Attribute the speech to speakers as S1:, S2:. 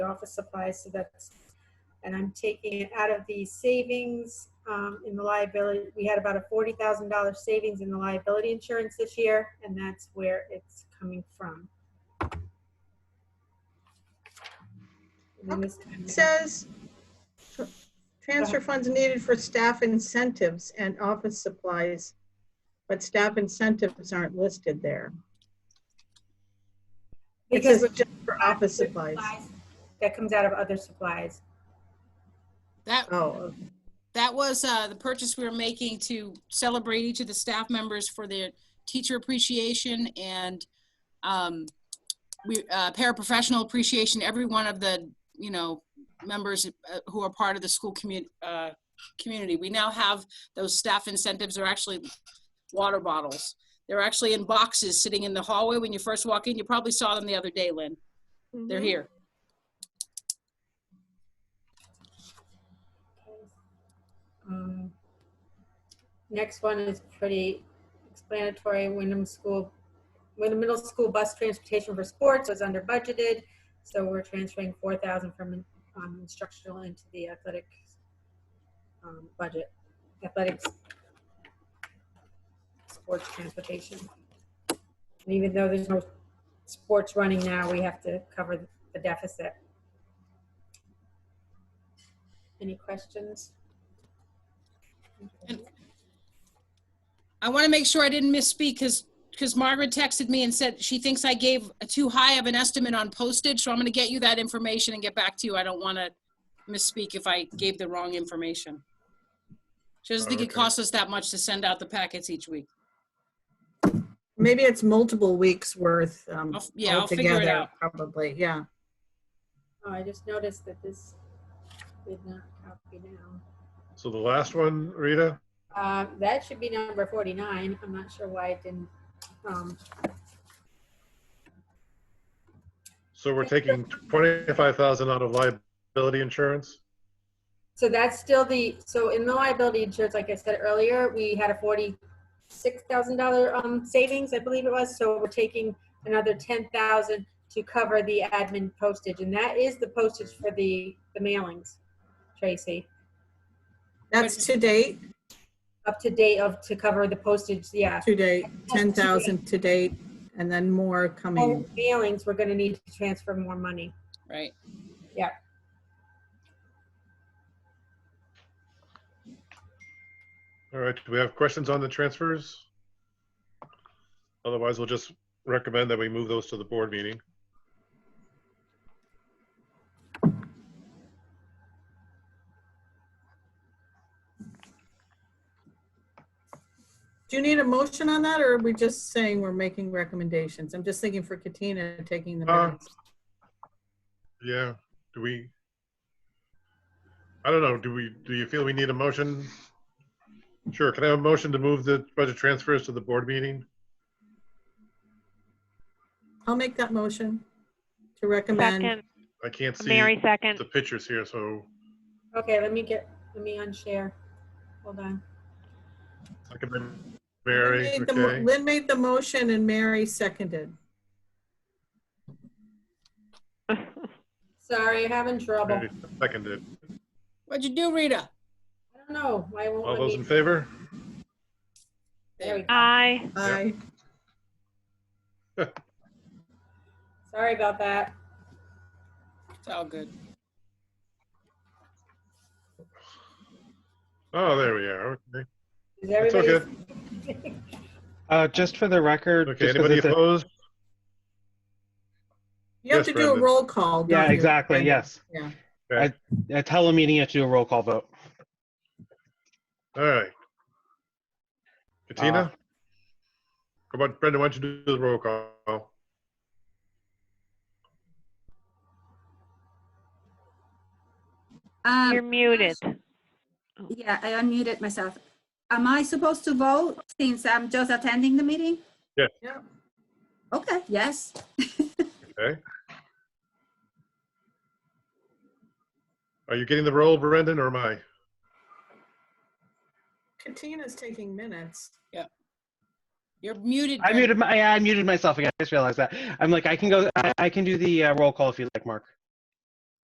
S1: office supplies, so that's, and I'm taking it out of the savings um, in the liability. We had about a forty thousand dollar savings in the liability insurance this year, and that's where it's coming from. And then this time-
S2: It says, tr- transfer funds needed for staff incentives and office supplies, but staff incentives aren't listed there. It
S1: Because
S2: says just for office supplies.
S1: That comes out of other supplies.
S3: That,
S2: Oh,
S3: that was uh, the purchase we were making to celebrate each of the staff members for their teacher appreciation and um, we, uh, paraprofessional appreciation. Every one of the, you know, members uh, who are part of the school commu- uh, community. We now have those staff incentives are actually water bottles. They're actually in boxes sitting in the hallway when you first walk in. You probably saw them the other day, Lynn. They're
S2: Mm-hmm.
S3: here.
S1: Um, Next one is pretty explanatory. Wyndham School, Wyndham Middle School bus transportation for sports was under budgeted. So we're transferring four thousand from um, instructional into the athletic um, budget, athletics, sports transportation. And even though there's no sports running now, we have to cover the deficit. Any questions?
S3: I want to make sure I didn't misspeak because because Margaret texted me and said she thinks I gave a too high of an estimate on postage. So I'm going to get you that information and get back to you. I don't want to misspeak if I gave the wrong information. She doesn't think it
S4: Okay.
S3: costs us that much to send out the packets each week.
S2: Maybe it's multiple weeks worth um,
S3: I'll f- yeah, I'll figure it
S2: altogether,
S3: out.
S2: probably, yeah.
S1: Oh, I just noticed that this did not copy down.
S4: So the last one, Rita,
S1: Uh, that should be number forty-nine. I'm not sure why it didn't, um,
S4: so we're taking twenty-five thousand out of liability insurance?
S1: so that's still the, so in the liability insurance, like I said earlier, we had a forty-six thousand dollar, um, savings, I believe it was, so we're taking another ten thousand to cover the admin postage, and that is the postage for the, the mailings, Tracy.
S2: That's to date,
S1: Up to date of, to cover the postage, yeah.
S2: to date, 10,000 to date, and then more coming.
S1: And mailings, we're gonna need to transfer more money.
S3: Right.
S4: All right, do we have questions on the transfers? Otherwise, we'll just recommend that we move those to the board meeting.
S2: Do you need a motion on that, or are we just saying we're making recommendations? I'm just thinking for Katina taking the
S4: Uh,
S2: minutes.
S4: Yeah, do we? I don't know, do we, do you feel we need a motion? Sure, can I have a motion to move the budget transfers to the board meeting?
S2: I'll make that motion to recommend.
S5: Second,
S4: I can't see
S5: Mary second.
S4: the pictures here, so
S1: Okay, let me get, let me unshare. Hold on.
S4: I can, Mary,
S2: Lynn made the mo-
S4: okay,
S2: Lynn made the motion and Mary seconded.
S1: Sorry, having trouble.
S4: Mary seconded.
S3: What'd you do, Rita?
S1: I don't know. Why won't
S4: All
S1: let
S4: those
S1: me?
S4: in favor?
S1: There we go.
S5: Aye.
S2: Aye.
S1: Sorry about that.
S3: It's all good.
S4: Oh, there we are, okay.
S1: Is
S4: It's
S1: everybody?
S4: okay.
S6: Uh, just for the record.
S4: Okay,
S6: just 'cause
S4: anybody
S6: it's a-
S4: opposed?
S2: You have
S4: Yes,
S2: to do a
S4: Brendan.
S2: roll call. don't
S6: Yeah,
S2: you?
S6: exactly, yes.
S2: Yeah.
S6: I, I tell a meeting you have to do a roll call vote.
S4: All right.
S6: Uh,
S4: Katina? Come on, Brenda, why don't you do the roll call?
S7: Um,
S5: You're muted.
S7: yeah, I unmuted myself. Am I supposed to vote since I'm just attending the meeting?
S4: Yeah.
S2: Yeah.
S7: Okay, yes.
S4: Okay. Are you getting the roll, Brendan, or am I?
S2: Katina's taking minutes.
S3: You're muted.
S6: I
S3: Brenda.
S6: muted my, I muted myself again. I just realized that. I'm like, I can go, I, I can do the uh, roll call if you like, Mark.